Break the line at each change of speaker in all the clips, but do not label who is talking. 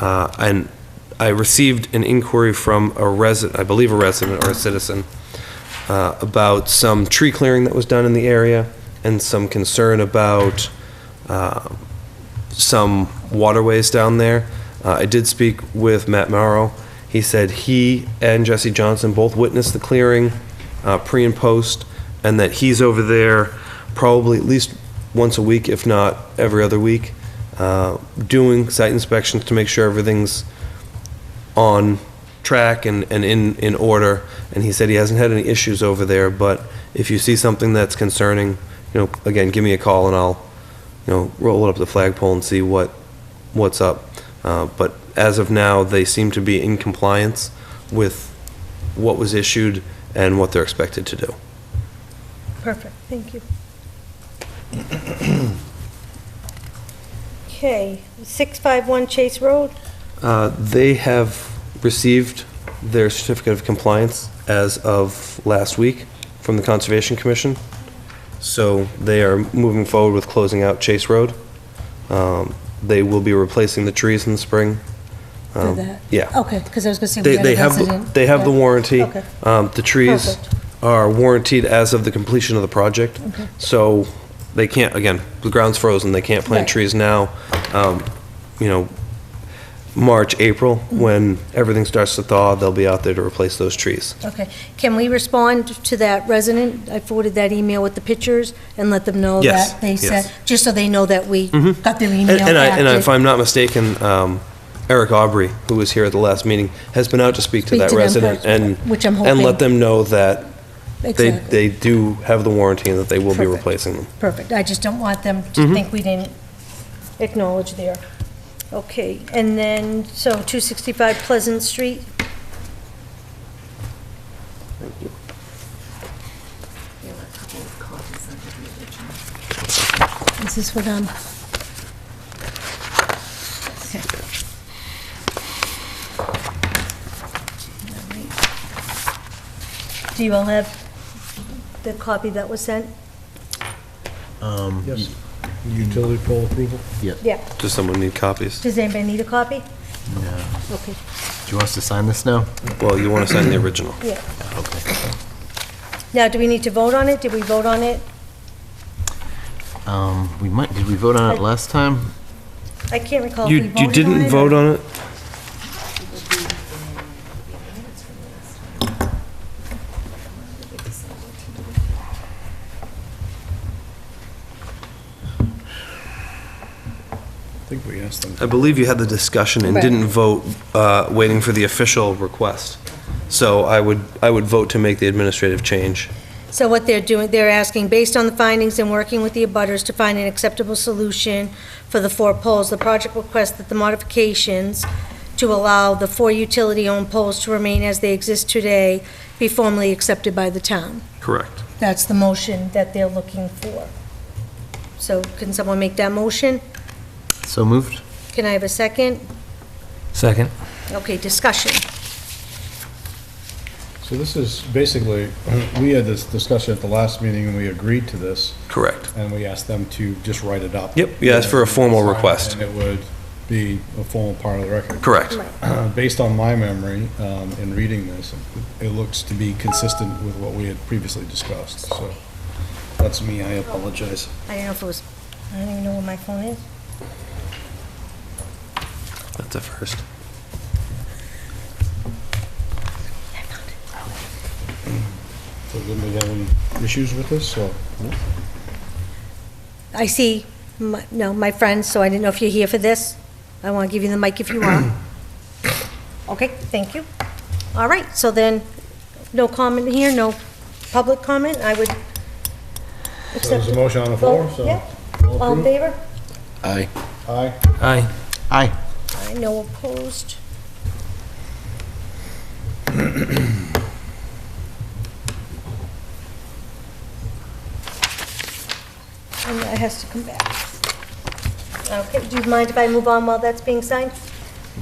Uh, And I received an inquiry from a resident, I believe a resident or a citizen, uh, about some tree clearing that was done in the area and some concern about uh, some waterways down there. Uh, I did speak with Matt Morrow. He said he and Jesse Johnson both witnessed the clearing uh, pre and post, and that he's over there probably at least once a week, if not every other week, uh, doing site inspections to make sure everything's on track and, and in, in order. And he said he hasn't had any issues over there, but if you see something that's concerning, you know, again, give me a call and I'll, you know, roll it up the flagpole and see what, what's up. Uh, But as of now, they seem to be in compliance with what was issued and what they're expected to do.
Perfect, thank you. Okay, 651 Chase Road,
Uh, They have received their certificate of compliance as of last week from the Conservation Commission. So they are moving forward with closing out Chase Road. Um, They will be replacing the trees in the spring.
Do
Um,
that?
Yeah.
Okay, because I was going to say we
They,
had
they
an
have,
incident.
they have the
Yeah.
warranty.
Okay.
Um, The trees
Perfect.
are warranted as of the completion of the project. So they can't, again, the ground's frozen, they can't plant
Right.
trees now. Um, You know, March, April,
Mm-hmm.
when everything starts to thaw, they'll be out there to replace those trees.
Okay. Can we respond to that resident? I forwarded that email with the pictures and let them know
Yes,
Oh, that they
yes.
said, just so they know that we got their email
And and I, and I- if
active.
I'm not mistaken, um, Eric Aubrey, who was here at the last meeting, has been out to speak to
Speak
that
to them
resident
first,
and.
which I'm
And let
hoping-
them know that they,
Exactly.
they do have the warranty and that they will be
Perfect.
replacing them.
Perfect. I just don't want them to think we didn't acknowledge their,
okay, and then, so 265 Pleasant Street,
is this what, um,
do you all have the copy that was sent?
Yes. Utility pole approval?
Yeah,
Does someone need copies?
does anybody need a copy?
No.
Okay,
Do you want us to sign this now?
Well, you want to sign the original.
yeah. Now, do we need to vote on it? Did we vote on it?
Um, we might, did we vote on it last time?
I can't recall if we
You,
voted on
you
it.
didn't
or-
vote on it?
I think we asked them.
I believe you had the discussion and
Right.
didn't vote, uh, waiting for the official request. So I would, I would vote to make the administrative change.
So what they're doing, they're asking, based on the findings and working with the abutters to find an acceptable solution for the four poles, the project requests that the modifications to allow the four utility-owned poles to remain as they exist today be formally accepted by the town.
Correct.
That's the motion that they're looking for. So can someone make that motion?
So moved?
Can I have a second?
Second.
Okay, discussion.
So this is basically, we had this discussion at the last meeting and we agreed to this
Correct.
and we asked them to just write it up.
Yep, you asked for a formal
Sign it,
request.
And it would be a formal part of the record.
Correct.
Based on my memory um, in reading this, it looks to be consistent with what we had previously discussed, so that's me, I apologize.
I don't know if it was, I don't even know where my phone is.
That's a first.
I found it.
So did we have any issues with this, so?
I see, my- no, my friends, so I didn't know if you're here for this. I want to give you the mic if you are. Okay, thank you. All right, so then, no comment here, no public comment, I would
So
accept.
There's
Oh,
a motion on the floor, so.
Yeah. All in favor?
Aye.
Aye.
Aye.
Aye.
I no opposed. And that has to come back. Okay, do you mind if I move on while that's being signed?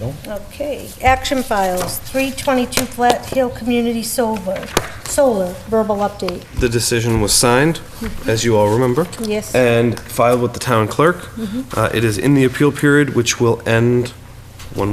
No.
Okay, action files, 322 Flat Hill Community Solar, Solar, verbal update.
The decision was signed, as you all remember.
Yes.
And filed with the town clerk. Uh, It is in the appeal period, which will end when we